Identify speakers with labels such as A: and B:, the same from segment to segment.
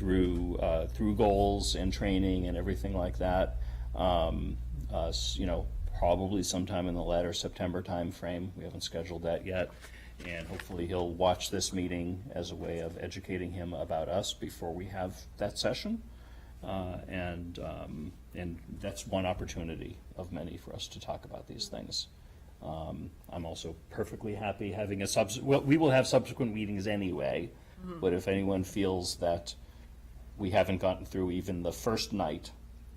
A: through, uh, through goals and training and everything like that. Um, uh, s- you know, probably sometime in the latter September timeframe. We haven't scheduled that yet. And hopefully he'll watch this meeting as a way of educating him about us before we have that session. Uh, and, um, and that's one opportunity of many for us to talk about these things. Um, I'm also perfectly happy having a subs, well, we will have subsequent meetings anyway, but if anyone feels that we haven't gotten through even the first night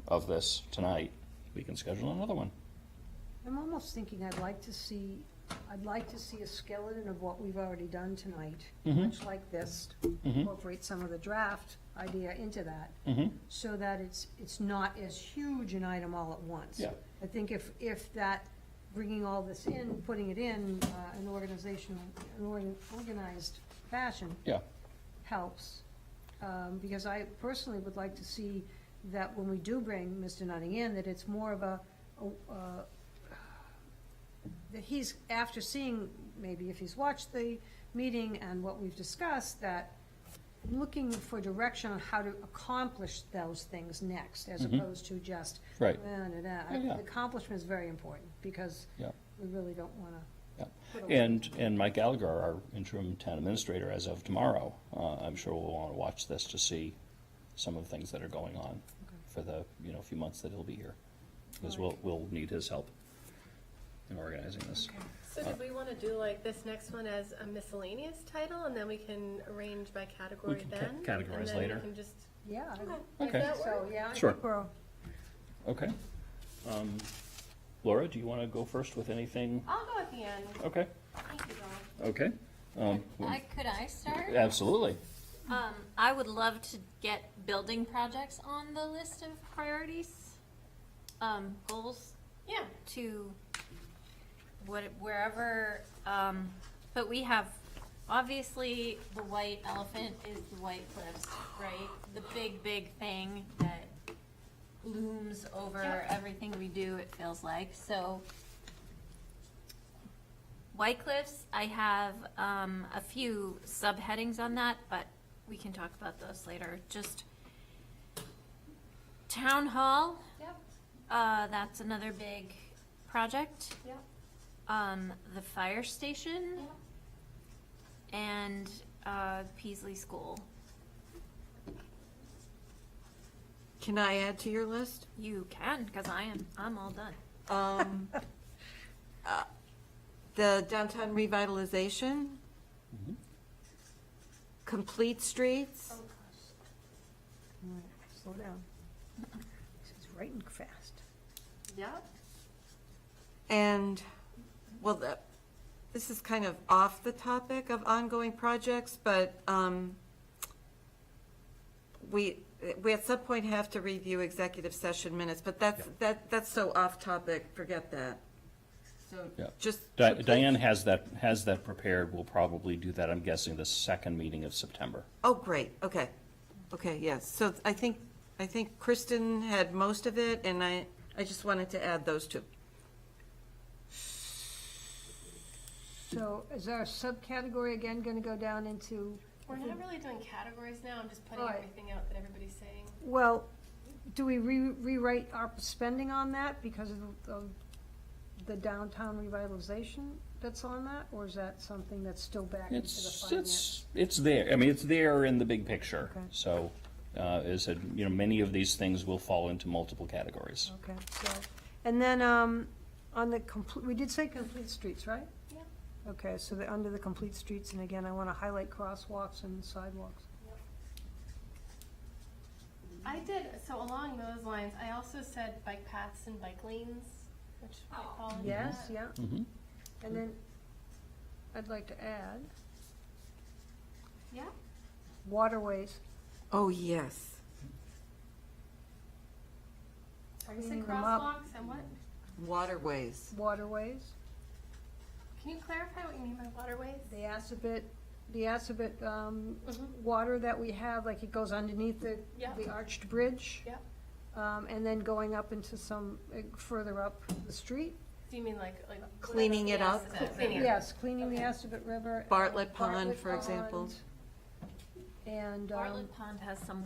A: of this tonight, we can schedule another one.
B: I'm almost thinking I'd like to see, I'd like to see a skeleton of what we've already done tonight, much like this. Incorporate some of the draft idea into that. So that it's, it's not as huge an item all at once.
A: Yeah.
B: I think if, if that, bringing all this in, putting it in, uh, an organization, an organ- organized fashion,
A: Yeah,
B: helps, um, because I personally would like to see that when we do bring Mr. Nutting in, that it's more of a, a- uh, that he's, after seeing, maybe if he's watched the meeting and what we've discussed, that looking for direction on how to accomplish those things next, as opposed to just.
A: Mm-hmm. Right.
B: "Nah, nah, nah."
A: Yeah, yeah.
B: The Accomplishment is very important, because
A: yeah,
B: we really don't want to
A: yeah. And, and Mike Gallagher, our interim town administrator, as of tomorrow, uh, I'm sure will want to watch this to see some of the things that are going on for the, you know, few months that he'll be here. Because we'll, we'll need his help in organizing this.
C: So did we want to do like this next one as a miscellaneous title and then we can arrange by
A: We
C: category
A: can ca-
C: then?
A: categorize
C: And then we
A: later.
C: can just.
B: Yeah. I-
C: Does
A: Okay.
C: that
B: So,
C: work?
B: yeah. I
A: Sure.
B: think we're-
A: Okay. Um, Laura, do you want to go first with anything?
C: I'll go at the end.
A: Okay,
D: Thank you, Dawn.
A: okay. Um,
D: I, could I start?
A: Absolutely.
D: Um, I would love to get building projects on the list of priorities, um, goals
C: Yeah.
D: to what, wherever, um, but we have, obviously, the white elephant is the White Cliffs, right? The big, big thing that looms over
C: Yep.
D: everything we do, it feels like, so. White Cliffs, I have, um, a few subheadings on that, but we can talk about those later, just. Town Hall,
C: Yep,
D: uh, that's another big project.
C: yep,
D: Um, the fire station
C: yep.
D: and uh, Peasley School.
E: Can I add to your list?
D: You can, because I am. I'm all done.
E: Um, uh, The downtown revitalization? Complete streets?
B: All right, Slow down. She's writing fast.
C: Yep.
E: And, well, the- this is kind of off the topic of ongoing projects, but um, we, we at some point have to review executive session minutes, but that's, that, that's so off topic, forget that. So
A: Yeah.
E: just.
A: Di-
E: complete-
A: Diane has that, has that prepared. We'll probably do that, I'm guessing, the second meeting of September.
E: Oh, great, okay, okay, yes, so I think, I think Kristen had most of it, and I, I just wanted to add those two.
B: So is our subcategory again gonna go down into,
C: We're not really doing categories now. I'm just putting
B: Alright.
C: everything out that everybody's saying.
B: well, do we re- rewrite our spending on that because of, of the downtown revitalization that's on that? Or is that something that's still back into the
A: It's,
B: finance?
A: it's, it's there. I mean, it's there in the big picture.
B: Okay.
A: So, uh, as I said, you know, many of these things will fall into multiple categories.
B: Okay, so, and then, um, on the complete, we did say complete streets, right?
C: Yep.
B: Okay, so the, under the complete streets, and again, I wanna highlight crosswalks and sidewalks.
C: I did, so along those lines, I also said bike paths and bike lanes, which might
D: Oh.
C: fall into
B: Yes,
C: that.
B: yeah.
A: Mhm.
B: And then, I'd like to add
C: Yeah.
B: waterways.
E: Oh, yes,
C: I said
B: Bringing them up.
C: crosswalks and what?
E: waterways.
B: waterways,
C: Can you clarify what you mean by waterways?
B: the Assabet, the Assabet, um,
C: Mhm.
B: water that we have, like it goes underneath the,
C: Yeah.
B: the arched bridge.
C: Yep.
B: Um, and then going up into some, uh, further up the street.
C: Do you mean like, like?
E: Cleaning it up?
C: Yes, uh, Cleaning it up.
B: Yes, cleaning the Assabet River. and
E: Bartlett Pond,
B: Bartlett
E: for example.
B: Pond, And, um,
D: Bartlett Pond has some